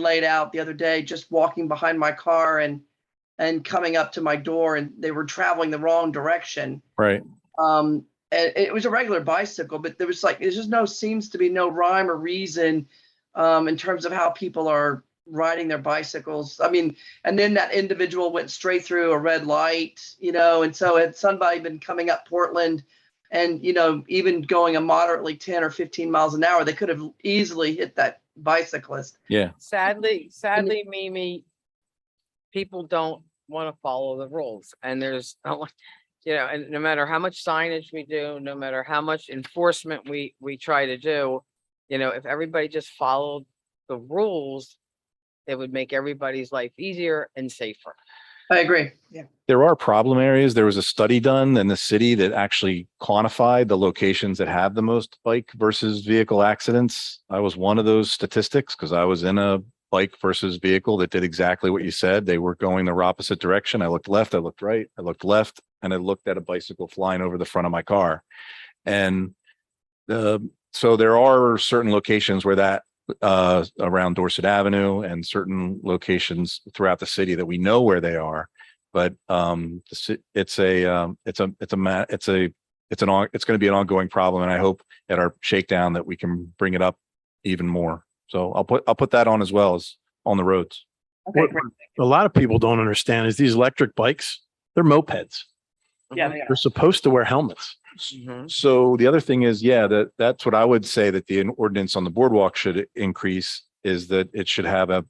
laid out the other day, just walking behind my car and, and coming up to my door and they were traveling the wrong direction. Right. Um, and it was a regular bicycle, but there was like, there's just no, seems to be no rhyme or reason um, in terms of how people are riding their bicycles. I mean, and then that individual went straight through a red light, you know, and so had somebody been coming up Portland and, you know, even going a moderately 10 or 15 miles an hour, they could have easily hit that bicyclist. Yeah. Sadly, sadly, Mimi, people don't want to follow the rules and there's, no one- you know, and no matter how much signage we do, no matter how much enforcement we, we try to do, you know, if everybody just followed the rules, it would make everybody's life easier and safer. I agree. Yeah. There are problem areas. There was a study done in the city that actually quantified the locations that have the most bike versus vehicle accidents. I was one of those statistics because I was in a bike versus vehicle that did exactly what you said. They were going the opposite direction. I looked left, I looked right, I looked left, and I looked at a bicycle flying over the front of my car. And the, so there are certain locations where that uh around Dorset Avenue and certain locations throughout the city that we know where they are. But um the ci- it's a um it's a it's a ma- it's a it's an on it's going to be an ongoing problem and I hope at our shakedown that we can bring it up even more. So I'll put I'll put that on as well as on the roads. Okay, What- great. a lot of people don't understand is these electric bikes, they're mopeds. Yeah, Uh-huh. Mm-hmm. they They're supposed to wear helmets. Mm-hmm. Mhm. So the other thing is, yeah, that that's what I would say that the ordinance on the boardwalk should increase is that it should have a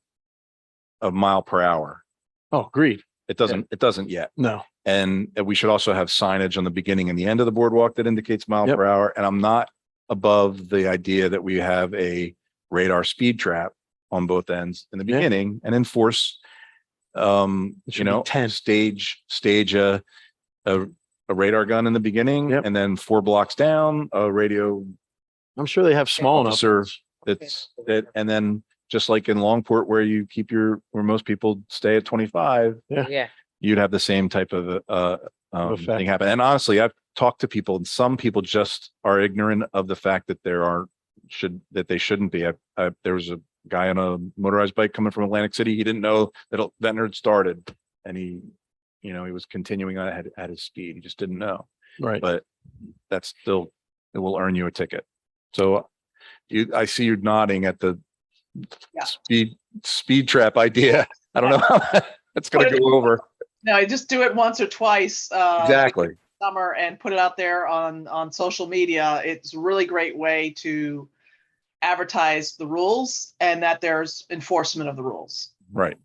a mile per hour. Oh, agreed. It doesn't it doesn't yet. No, And we should also have signage on the beginning and the end of the boardwalk that indicates mile Yep. per hour. And I'm not above the idea that we have a radar speed trap on both ends in the Yeah. beginning and enforce um, you It should be know, 10. stage, stage a a a radar gun in the beginning Yep. and then four blocks down, a radio I'm sure they have small enough. Officer. that's that, and then just like in Longport where you keep your, where most people stay at twenty-five, Yeah, you'd have the same type of uh um, Effect. thing happen. And honestly, I've talked to people, and some people just are ignorant of the fact that there are should that they shouldn't be. I, I, there was a guy on a motorized bike coming from Atlantic City. He didn't know that it- Ventnor had started, and he, you know, he was continuing on at, at his speed. He just didn't know. Right. But that's still it will earn you a ticket. So you, I see you nodding at the Yeah. speed speed trap idea. I don't know how that's going to go over. No, just do it once or twice. uh, Exactly. Summer and put it out there on, on social media. It's a really great way to advertise the rules and that there's enforcement of the rules. Right.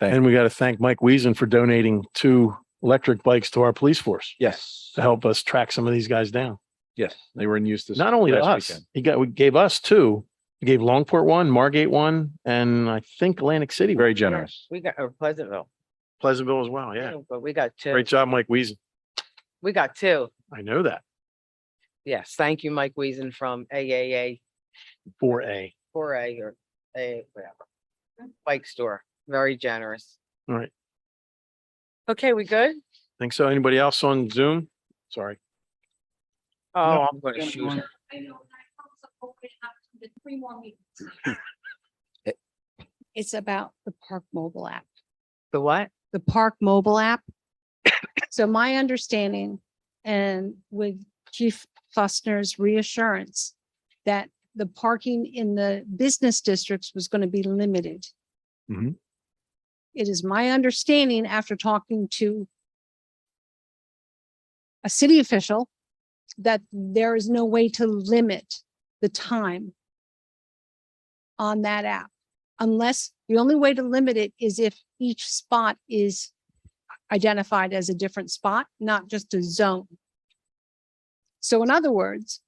And we got to thank Mike Wiesen for donating two electric bikes to our police force Yes. to help us track some of these guys down. Yes. They were in use this. Not only to last us, weekend. he got, we gave us two. He gave Longport one, Margate one, and I think Atlantic City. one. Very generous. we got, or Pleasantville, Pleasantville as well. Yeah. but we got two, Great job, Mike Wiesen. we got two. I know that. Yes, thank you, Mike Wiesen from AAA Four A. four A or A, whatever. Bike store, very generous. All right. Okay, we good? Think so. Anybody else on Zoom? Sorry. Oh, I'm gonna shoot her. I know, and I hope so, hopefully have the three more meetings. It's about the Park Mobile app, The what? the Park Mobile app. So my understanding and with Chief Fussner's reassurance that the parking in the business districts was going to be limited. Mhm. It is my understanding after talking to a city official that there is no way to limit the time on that app unless the only way to limit it is if each spot is identified as a different spot, not just a zone. So in other words,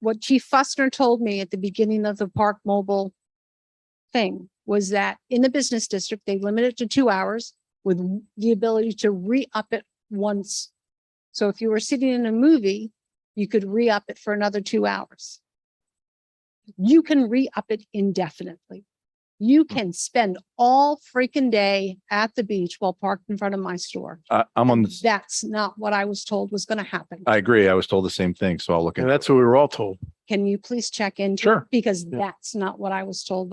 what Chief Fussner told me at the beginning of the Park Mobile thing was that in the business district, they limit it to two hours with w- the ability to re-up it once. So if you were sitting in a movie, you could re-up it for another two hours you can re-up it indefinitely. You Hmm. can spend all freaking day at the beach while parked in front of my store. I, I'm on, the- That's not what I was told was gonna happen. I agree. I was told the same thing. So I'll look at And that's what we were all told. Can you please check into? it? Sure. Because Yeah. that's not what I was told